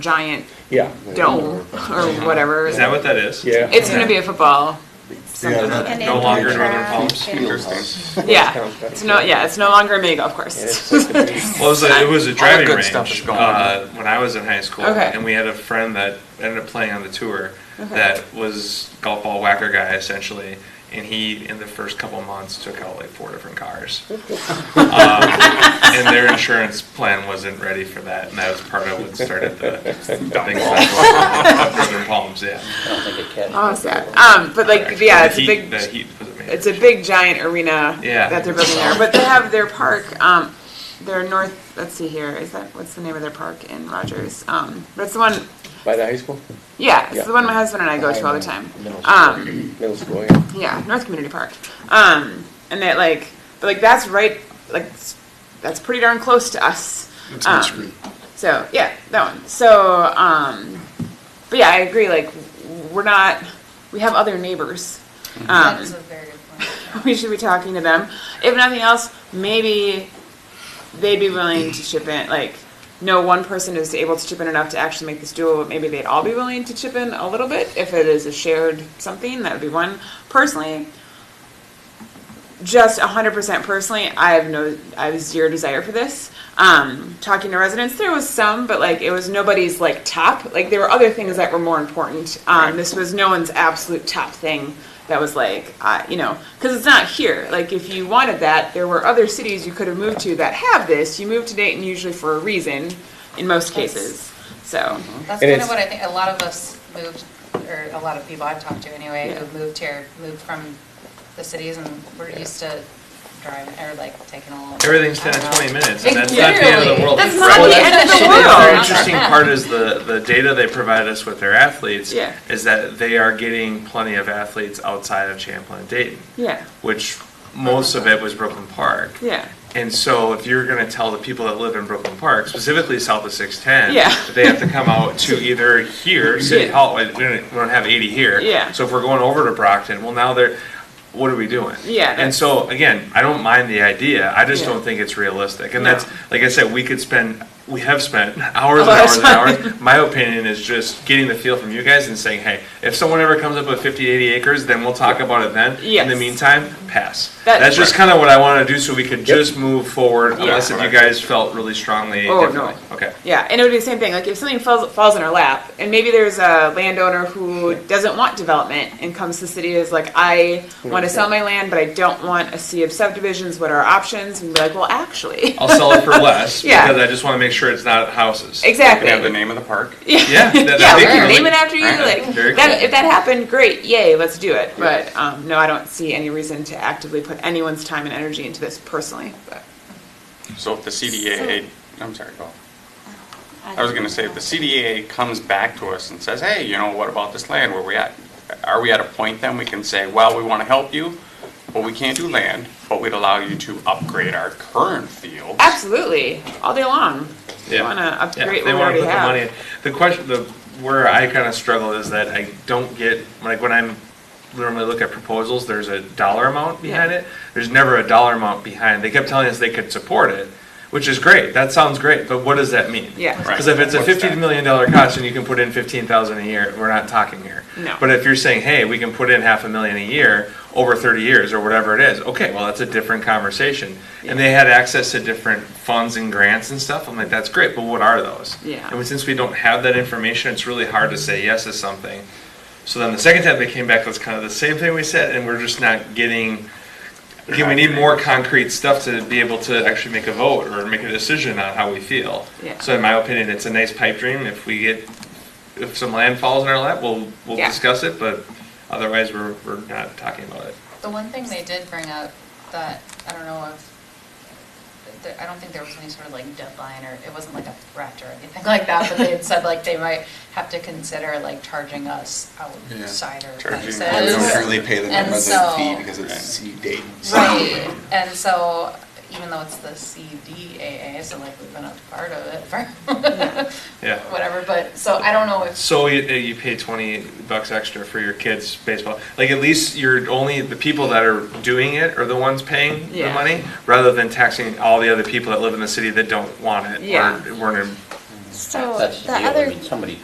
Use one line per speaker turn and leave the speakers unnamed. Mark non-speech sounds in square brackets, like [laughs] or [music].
giant
Yeah,
dome or whatever.
Is that what that is?
yeah.
It's gonna be a football. something or other.
And
No
then
longer
the
Northern
track
Palms.
and-
Interesting.
Yeah, it's no, yeah, it's no longer a mini golf
Yeah, it's
course.
like a big-
Well, it was a, it was a driving
good
range
stuff is gone.
uh, when I was in high school,
Okay. Uh-huh.
and we had a friend that ended up playing on the tour that was golf ball whacker guy essentially, and he in the first couple of months took out like four
[laughs]
different cars, um, and their insurance plan wasn't ready for that, and that was part of what started the thing [laughs] of Northern Palms. Yeah,
[laughs] Oh, sad. Um, but like, yeah, it's a
the heat,
big,
The heat was amazing.
it's a big giant arena
Yeah.
that they're building there. But they have their park, um, their north, let's see here, is that, what's the name of their park in Rogers? Um, but it's the one,
By the high school,
yeah,
Yeah.
it's the one my husband and I go to all the time.
Middle school.
Um,
middle school, yeah.
Yeah, North Community Park. Um, and that like, but like that's right, like s- that's pretty darn close to us.
That's on
Um,
screen.
So yeah, that one. So um, but yeah, I agree. Like we're not, we have other neighbors.
That
Um, [laughs]
is a very good point.
we should be talking to them. If nothing else, maybe they'd be willing to chip in. Like, no one person is able to chip in enough to actually make this dual, but maybe they'd all be willing to chip in a little bit if it is a shared something. That would be one. Personally, just 100% personally, I have no, I have zero desire for this. Um, talking to residents, there was some, but like it was nobody's like top. Like there were other things that were more important. Um, This was no one's absolute top thing that was like, uh, you know, because it's not here. Like if you wanted that, there were other cities you could have moved to that have this. You moved to Dayton usually for a reason, in most cases. So
That's
And
kind
it's-
of what I think, a lot of us moved, or a lot of people I've talked to anyway, who
Yeah.
moved here, moved from the cities and we're used to driving, or like taking a little.
Everything's 10
I don't
to
know.
20 minutes, and that's not the end of the
Literally.
world.
That's not
Well,
the
that's
end of the
actually The very
world.
interesting part is the, the data they provide us with their athletes
Yeah.
is that they are getting plenty of athletes outside of Champlin and Dayton,
yeah,
which most of it was Brooklyn Park.
yeah,
And so if you're going to tell the people that live in Brooklyn Park, specifically south of 610,
Yeah.
that they have to come
[laughs]
out to either here, City
Yeah.
Hall, we don't, we don't have 80 here.
Yeah.
So if we're going over to Brockton, well, now they're, what are we doing?
Yeah,
And
that's-
so, again, I don't mind the idea, I just
Yeah.
don't think it's realistic. And
No.
that's, like I said, we could spend, we have spent [laughs] hours and
lot of
hours and hours. My opinion is just getting the feel from you guys and saying, hey, if someone ever comes up with 50, 80 acres, then we'll talk about it then. In the
Yes.
meantime, pass.
That-
That's just kind of what I want to do, so we could just move forward,
Yeah.
unless if you guys felt really strongly.
Oh, no.
differently. Okay.
yeah. And it would be the same thing. Like if something falls falls in our lap, and maybe there's a landowner who doesn't want development and comes to the city is like, I want to sell my land, but I don't want a sea of subdivisions. What are our options? And be like, well, actually,
I'll sell it for less,
Yeah.
because I just want to make sure it's not houses.
[laughs] exactly.
They have the name of the park.
[laughs]
Yeah, that-
yeah,
that'd
we
be
can
really-
name it after you.
Alright,
Like
very
that,
cool.
if that happened, great, yay, let's do it. But um, no, I don't see any reason to actively put anyone's time and energy into this personally. But
So if the CDA, I'm sorry, go. I was gonna say, if the CDA comes back to us and says, hey, you know, what about this land, where we at? Are we at a point then we can say, well, we wanna help you, but we can't do land, but we'd allow you to upgrade our current field?
absolutely, all day long. If You want to
Yeah,
upgrade
they
what we already
want to put the
have.
money in. The question, the where I kind of struggle is that I don't get like when I'm normally look at proposals. There's a dollar amount behind
Yeah.
it. There's never a dollar amount behind. They kept telling us they could support it, which is great. That sounds great, but what does that mean?
Yeah. Right.
Because if it's a
What's
fifty
that?
million dollar cost and you can put in fifteen thousand a year, we're not talking here.
No.
But if you're saying, hey, we can put in half a million a year over thirty years or whatever it is, okay, well that's a different conversation. And they had access to different funds and grants and stuff. I'm like, that's great, but what are those?
Yeah.
And since we don't have that information, it's really hard to say yes to something. So then the second time they came back, that's kind of the same thing we said, and we're just not getting. Again, we need more concrete stuff to be able to actually make a vote or make a decision on how we feel.
Yeah.
So in my opinion, it's a nice pipe dream. If we get, if some land falls in our lap, we'll, we'll
Yeah.
discuss it, but otherwise, we're, we're not talking about it.
The one thing they did bring up that, I don't know if, there- I don't think there was any sort of like deadline or, it wasn't like a threat or anything [laughs] like that, but they had said like they might have to consider like charging us outsider
Charging
prices.
us.
We don't currently pay them a
And
resident fee
so-
because it's C date.
Right, and so, even though it's the CDAA, so like we've been a part of it for [laughs]
Yeah.
whatever, but, so I don't know if,
So you, uh, you pay twenty bucks extra for your kids' baseball. Like at least you're only the people that are doing it are the ones paying the
Yeah.
money, rather than taxing all the other people that live in the city that don't want it
Yeah.
or weren't in-
So
That's the
the
deal. I
other
mean, somebody